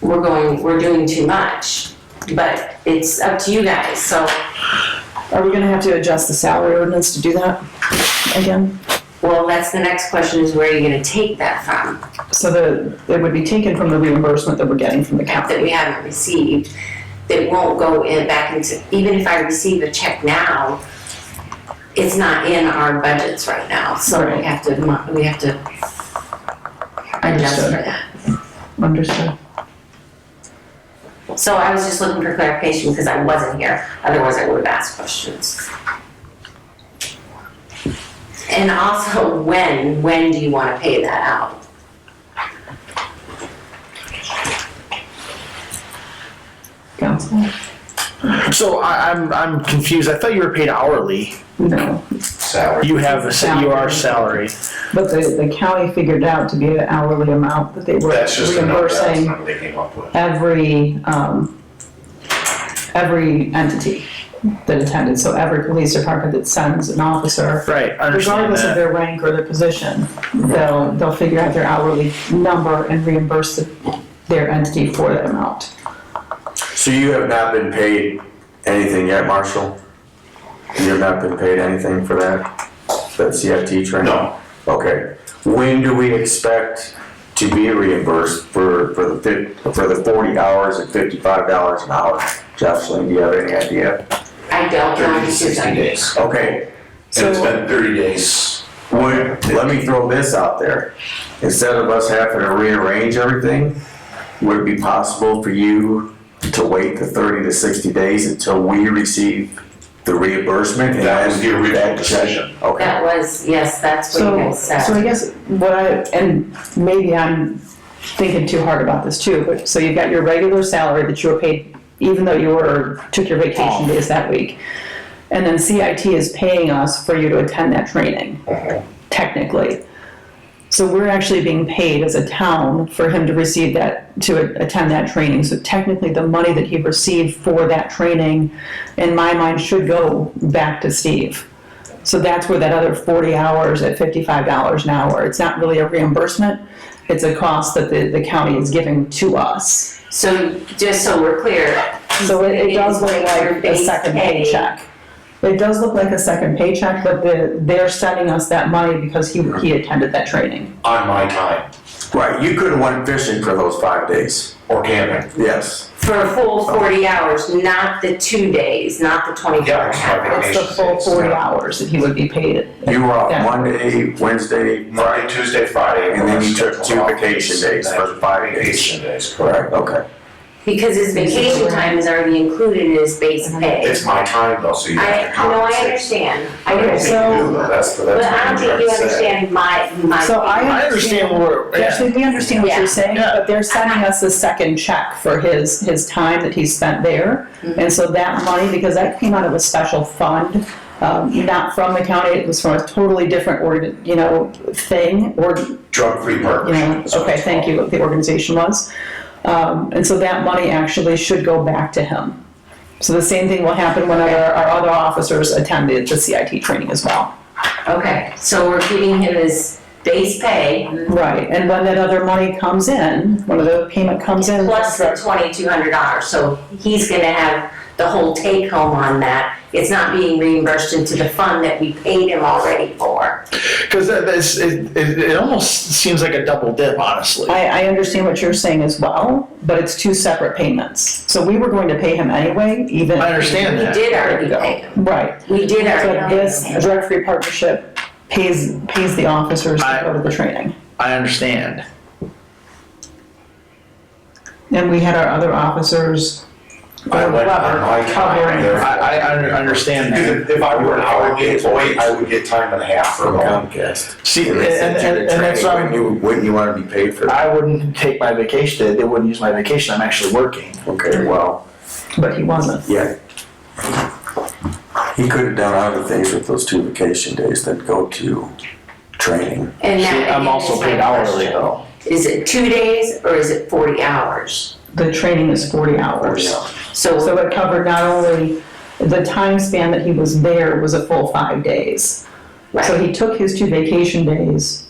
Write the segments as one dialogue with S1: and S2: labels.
S1: we're going, we're doing too much. But it's up to you guys, so
S2: Are we gonna have to adjust the salary ordinance to do that again?
S1: Well, that's the next question is where are you gonna take that from,
S2: So the, it would be taken from the reimbursement that we're getting from the
S1: that
S2: county.
S1: we haven't received, that won't go in back into, even if I receive a check now, it's not in our budgets right now, so we
S2: Right.
S1: have to, mo- we have to adjust
S2: Understood.
S1: for that.
S2: Understood.
S1: So I was just looking for clarification because I wasn't here, otherwise I would have asked questions. And also, when, when do you wanna pay that out?
S2: Council?
S3: So I, I'm I'm confused. I thought you were paid hourly.
S2: No,
S4: salary.
S3: You have a sa- you are salary.
S2: but the, the county figured out to be an hourly amount that they were
S4: That's just a number, that's the
S2: reimbursing
S4: number they came up with.
S2: every, um, every entity that attended, so every police department that sends an officer,
S3: Right, I understand
S2: regardless of
S3: that.
S2: their rank or their position, they'll, they'll figure out their hourly number and reimburse the- their entity for that amount.
S5: So you have not been paid anything yet, Marshall? You have not been paid anything for that, that CFT training?
S4: No.
S5: Okay. When do we expect to be reimbursed for, for the fif, for the forty hours and fifty-five dollars an hour? Jocelyn, do you have any idea?
S1: I don't know.
S4: Thirty to sixty days.
S5: Okay,
S4: And it's
S2: So-
S4: been thirty days.
S5: would, let me throw this out there. Instead of us having to rearrange everything, would it be possible for you to wait the thirty to sixty days until we receive the reimbursement? and
S4: That was
S5: then
S4: the original
S5: that check-
S4: decision.
S5: Okay,
S1: That was, yes, that's what you
S2: So,
S1: guys said.
S2: so I guess what I, and maybe I'm thinking too hard about this too, but, so you've got your regular salary that you were paid, even though you were, took your vacation days that week. And then CIT is paying us for you to attend that training, technically. So we're actually being paid as a town for him to receive that, to attend that training. So technically, the money that he received for that training, in my mind, should go back to Steve. So that's where that other forty hours at fifty-five dollars an hour, it's not really a reimbursement, it's a cost that the, the county is giving to us.
S1: So just so we're clear,
S2: So it, it does look
S1: It's your
S2: like a
S1: base
S2: second
S1: pay.
S2: paycheck. It does look like a second paycheck, but the, they're sending us that money because he, he attended that training.
S4: On my time,
S5: right, you could have went fishing for those five days,
S4: or camping.
S5: yes.
S1: for a full forty hours, not the two days, not the twenty-four
S4: Yeah, it's not
S1: hours.
S2: It's the full forty hours that he would be paid.
S5: You were off
S2: Yeah.
S5: Monday, Wednesday,
S4: Monday, Tuesday, Friday.
S5: And then you took
S4: scheduled
S5: two
S4: off
S5: vacation
S4: days,
S5: days
S4: and then
S5: for the five days.
S4: Vacation days,
S5: right,
S4: correct.
S5: okay.
S1: Because his vacation time is already included in his base
S2: Mm-hmm.
S1: pay.
S4: It's my time though, so you
S1: I,
S4: have to
S1: no, I
S4: compensate.
S1: understand, I
S4: I think you
S1: understand,
S4: do, though. That's the,
S1: but
S4: that's
S1: I don't
S4: what I'm
S1: think you
S4: trying to say.
S1: understand my, my.
S2: So I-
S3: I understand what we're. Yeah.
S2: Actually, we understand what
S1: Yeah.
S2: you're saying, but they're sending us a second check for his, his time that he spent there.
S1: Mm-hmm.
S2: And so that money, because that came out of a special fund, um, not from the county, it was from a totally different, org- you know, thing, or,
S4: Drug-free
S2: you know,
S4: partnership. is what
S2: okay,
S4: it's
S2: thank you, what the organization was. Um, and so that money actually should go back to him. So the same thing will happen when our, our other officers attend the, the CIT training as well.
S1: Okay, so we're giving him his base pay
S2: Right, and when that other money comes in, when the payment comes in.
S1: plus the twenty-two hundred dollars, so he's gonna have the whole take-home on that. It's not being reimbursed into the fund that we paid him already for.
S3: Because that, that's, it, it, it almost seems like a double dip, honestly.
S2: I, I understand what you're saying as well, but it's two separate payments. So we were going to pay him anyway, even.
S3: I understand
S1: We
S3: that.
S1: did already pay him,
S2: Right,
S1: we did
S2: but
S1: already.
S2: this drug-free partnership pays, pays the officers to
S3: I-
S2: go to the training.
S3: I understand.
S2: And we had our other officers.
S4: called. I went on my time,
S2: Covering.
S3: I,
S4: therefore.
S3: I, I un- understand
S4: Because
S3: that.
S4: if- if I were an hourly employee, I would get time and a half for
S5: From
S4: going.
S5: Comcast.
S3: See,
S5: And
S3: and,
S5: they sent
S3: and,
S5: you
S3: and,
S5: to
S3: that's
S5: training.
S3: why
S5: Wouldn't you, wouldn't you wanna be paid for that?
S3: I wouldn't take my vacation. They wouldn't use my vacation. I'm actually working.
S5: Okay, well,
S2: But he wasn't.
S5: yeah. He could have done other things with those two vacation days than go to training.
S1: And
S3: See,
S1: that, again,
S3: I'm also
S1: is my
S3: paid hourly
S1: question.
S3: though.
S1: Is it two days or is it forty hours?
S2: The training is forty hours. So
S1: So,
S2: it covered not only, the time span that he was there was a full five days. So
S1: right.
S2: he took his two vacation days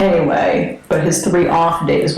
S2: anyway, but his three off days